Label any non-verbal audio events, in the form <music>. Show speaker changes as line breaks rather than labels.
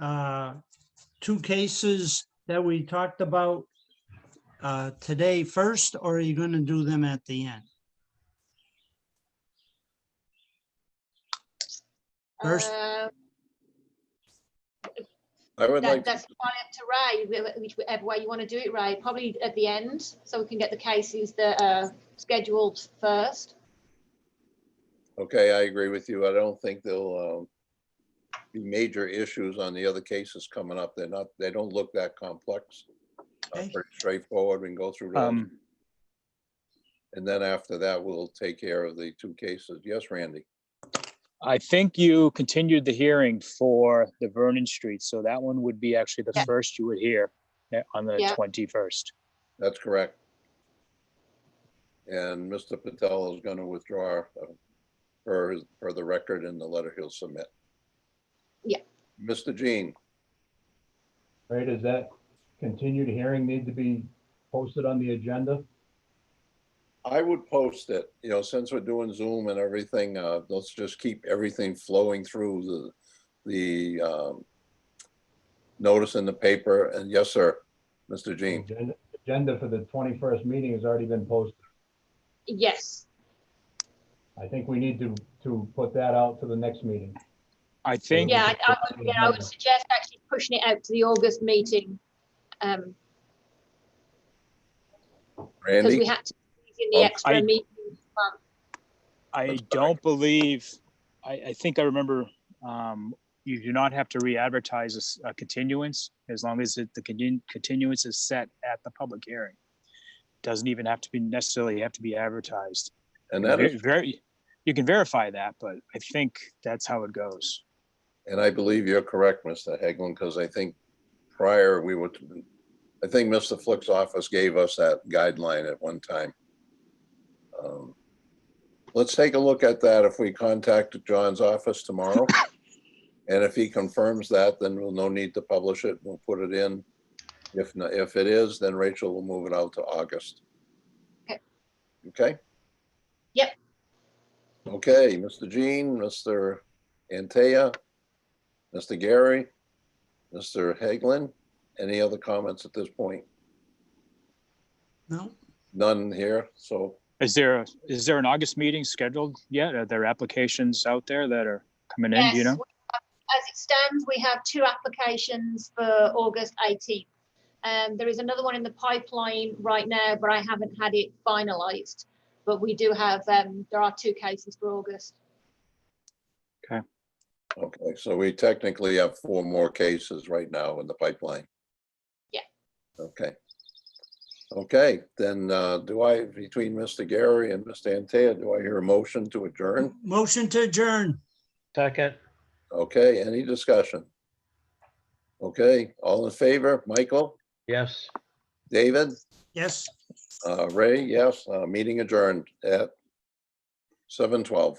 uh, two cases that we talked about uh, today first, or are you going to do them at the end? First-
Uh,
I would
That,
like,
that's fine up to Ray, wh- which- whichever way you want to do it, Ray, probably at the end, so we can get the cases that are scheduled first.
okay, I agree with you. I don't think there'll um, be major issues on the other cases coming up. They're not, they don't look that complex. Uh,
Okay.
Pretty straightforward. We can go through those.
Um,
And then after that, we'll take care of the two cases. Yes, Randy?
I think you continued the hearing for the Vernon Street, so that one would be actually the
Yeah.
first you would hear uh, on the
Yeah.
twenty-first.
That's correct. And Mr. Patel is going to withdraw uh, for, his- for the record in the letter he'll submit.
Yeah.
Mr. Jean,
Right, does that continued hearing need to be posted on the agenda?
I would post it, you know, since we're doing Zoom and everything, uh, let's just keep everything flowing through the, the, um, notice in the paper. And yes, sir, Mr. Jean.
Agenda- Agenda for the twenty-first meeting has already been posted.
Yes,
I think we need to, to put that out to the next meeting.
I think,
yeah, I, I would, yeah, I would suggest actually pushing it out to the August meeting. Um, because we
Randy,
had to squeeze in the
Oh,
I-
extra meeting. um,
I
That's
don't believe, I, I think I remember, um, you do not have to re-advertise a s- a continuance as long as it- the continu- continuance is set at the public hearing. Doesn't even have to be necessarily have to be advertised.
and that is,
Very, you can verify that, but I think that's how it goes.
and I believe you're correct, Mr. Hagland, because I think prior we were, I think Mr. Flick's office gave us that guideline at one time. Um, Let's take a look at that if we contact John's
<coughs>
office tomorrow. And if he confirms that, then we'll no need to publish it. We'll put it in. If, no- if it is, then Rachel will move it out to August.
Okay.
Okay?
Yep.
Okay, Mr. Jean, Mr. Antea, Mr. Gary, Mr. Haglin, any other comments at this point?
No?
None here, so
Is there, a- is there an August meeting scheduled yet? Are there applications out there that are coming in,
Yes,
do you know?
we have- As it stands, we have two applications for August 18th. Um, there is another one in the pipeline right now, but I haven't had it finalized. But we do have, um, there are two cases for August.
Okay, so we technically have four more cases right now in the pipeline.
Yeah.
Okay. Okay, then uh, do I, between Mr. Gary and Mr. Antea, do I hear a motion to adjourn?
Motion to adjourn.
Second,
Okay, any discussion? Okay, all in favor? Michael,
yes.
David,
Yes.
uh, Ray, yes, uh, meeting adjourned at seven twelve.